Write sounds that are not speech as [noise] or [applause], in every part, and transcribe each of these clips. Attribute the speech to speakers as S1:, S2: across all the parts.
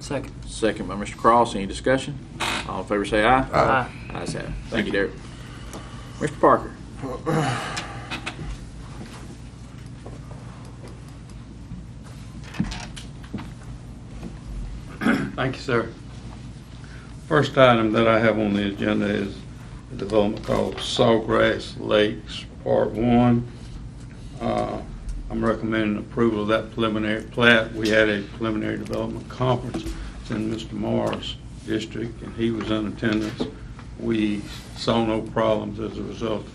S1: Second.
S2: Second by Mr. Cross. Any discussion? All in favor say aye.
S1: Aye.
S2: Ayes have it. Thank you, Derek. Mr. Parker.
S3: Thank you, sir. First item that I have on the agenda is a development called Sawgrass Lakes, Part One. Uh, I'm recommending approval of that preliminary plat. We had a preliminary development conference It's in Mr. Morris' district, and he was in attendance. We saw no problems as a result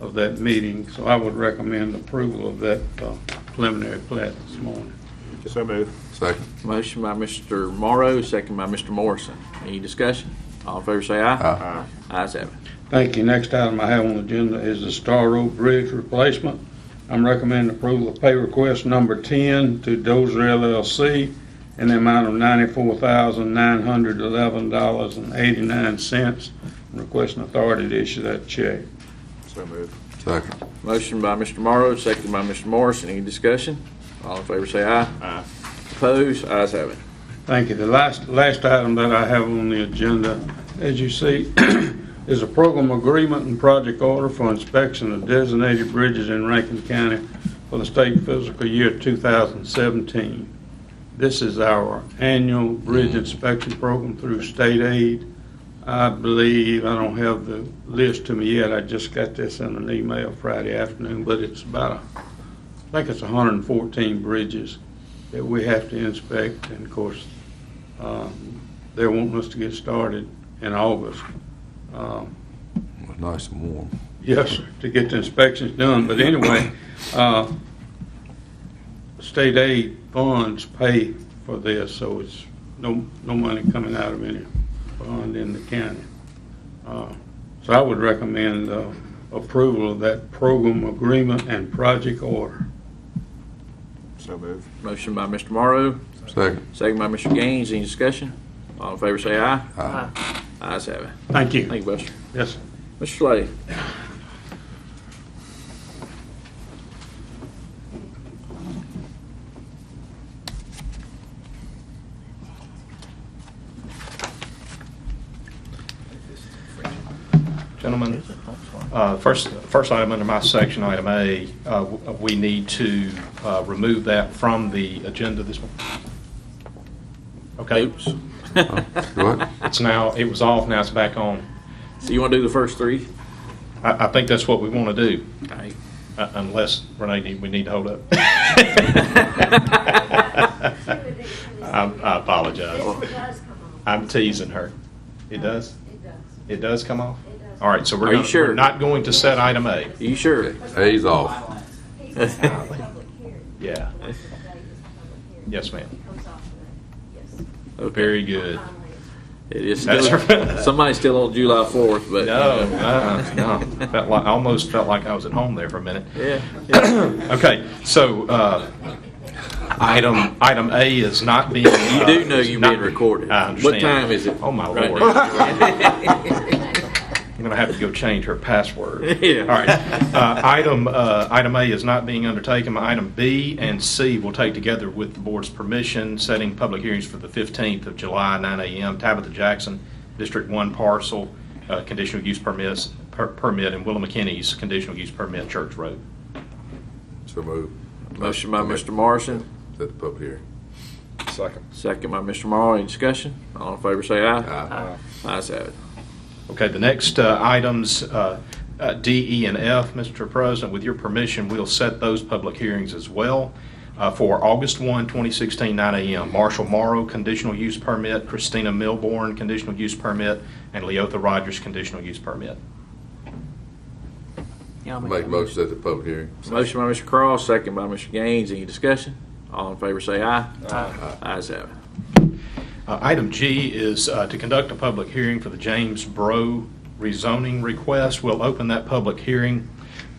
S3: of that meeting, so I would recommend approval of that uh, preliminary plat this morning.
S4: So move.
S5: Second.
S2: Motion by Mr. Morrow, second by Mr. Morrison. Any discussion? All in favor say aye.
S5: Aye.
S2: Ayes have it.
S3: Thank you. Next item I have on the agenda is the Star Road Bridge replacement. I'm recommending approval of pay request number 10 to Dozer LLC in the amount of $94,911.89. I'm Requesting authority to issue that check.
S4: So move.
S5: Second.
S2: Motion by Mr. Morrow, second by Mr. Morrison. Any discussion? All in favor say aye.
S4: Aye.
S2: Opposed? Ayes have it.
S3: Thank you. The last, last item that I have on the agenda, as you see, [clears throat] is a program agreement and project order for inspection of designated bridges in Rankin County for the state fiscal year 2017. This is our annual bridge inspection program through state aid. I believe, I don't have the list to me yet, I just got this in an email Friday afternoon, but it's about, a- I think it's 114 bridges that we have to inspect, and of course, um, they're wanting us to get started in August. Um,
S5: It was nice and warm.
S3: Yes, sir, to get the inspections done, but anyway, uh, state aid funds pay for this, so it's no, no money coming out of any fund in the county. Uh, So I would recommend uh, approval of that program agreement and project order.
S4: So move.
S2: Motion by Mr. Morrow,
S5: Second.
S2: second by Mr. Gaines. Any discussion? All in favor say aye.
S5: Aye.
S2: Ayes have it.
S3: Thank you.
S2: Thank you, Buster.
S3: Yes, sir.
S2: Mr. Slade.
S6: Gentlemen, uh, first, first item under my section, item A, uh, w- we need to uh, remove that from the agenda this one. Okay,
S2: Oops. [laughs]
S5: What?
S6: it's now, it was off, now it's back on.
S2: So you want to do the first three?
S6: I, I think that's what we want to do,
S2: All right.
S6: uh, unless, Renee, need- we need to hold
S7: [laughs]
S6: up. I I apologize.
S7: This does come on.
S6: I'm teasing her. It does?
S7: It does.
S6: It does come off?
S7: It does.
S6: All right, so
S2: Are
S6: we're
S2: you
S6: gonna-
S2: sure?
S6: we're not going to set item A.
S2: Are you sure?
S5: A's off.
S7: He's a public hearing.
S6: Yeah.
S7: Once a day is a public hearing.
S6: Yes, ma'am.
S7: It comes off of that.
S6: Very good.
S7: Yes. Finally, it's
S2: It is
S6: That's
S2: still,
S6: right.
S2: somebody's still on July 4th, but.
S6: No, uh-uh, no. Felt like, I almost felt like I was at home there for a minute.
S2: Yeah, yeah.
S6: [clears throat] Okay, so, uh, item, item A is not being.
S2: You do know you're being recorded.
S6: I understand.
S2: What time is it?
S6: Oh, my
S2: Right. [laughs]
S6: lord. I'm gonna have to go change her password.
S2: Yeah.
S6: All right, uh, item, uh, item A is not being undertaken. Item B and C will take together with the board's permission, setting public hearings for the 15th of July, 9 a.m. Tabitha Jackson, District 1 parcel, uh, conditional use permits, per- permit, and Willa McKinney's conditional use permit, Church Road.
S5: So move.
S2: Motion by Mr. Morrison,
S5: Set the public hearing.
S4: Second.
S2: second by Mr. Morrow. Any discussion? All in favor say aye.
S5: Aye.
S2: Ayes have it.
S6: Okay, the next uh, items, uh, uh, D, E, and F, Mr. President, with your permission, we'll set those public hearings as well uh, for August 1, 2016, 9 a.m. Marshall Morrow, conditional use permit, Christina Milborn, conditional use permit, and Leotha Rogers, conditional use permit.
S1: Yeah, I'll
S5: Make
S1: that
S5: motion, set the public hearing.
S2: Motion by Mr. Cross, second by Mr. Gaines. Any discussion? All in favor say aye.
S1: Aye.
S2: Ayes have it.
S6: Uh, Item G is uh, to conduct a public hearing for the James Bro rezoning request. We'll open that public hearing.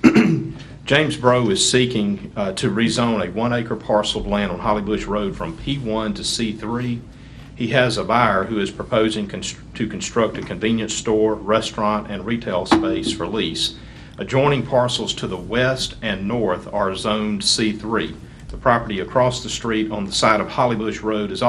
S6: [clears throat] James Bro is seeking uh, to rezone a one-acre parcel of land on Holly Bush Road from P1 to C3. He has a buyer who is proposing const- to construct a convenience store, restaurant, and retail space for lease. Adjoining parcels to the west and north are zoned C3. The property across the street on the side of Holly Bush Road is also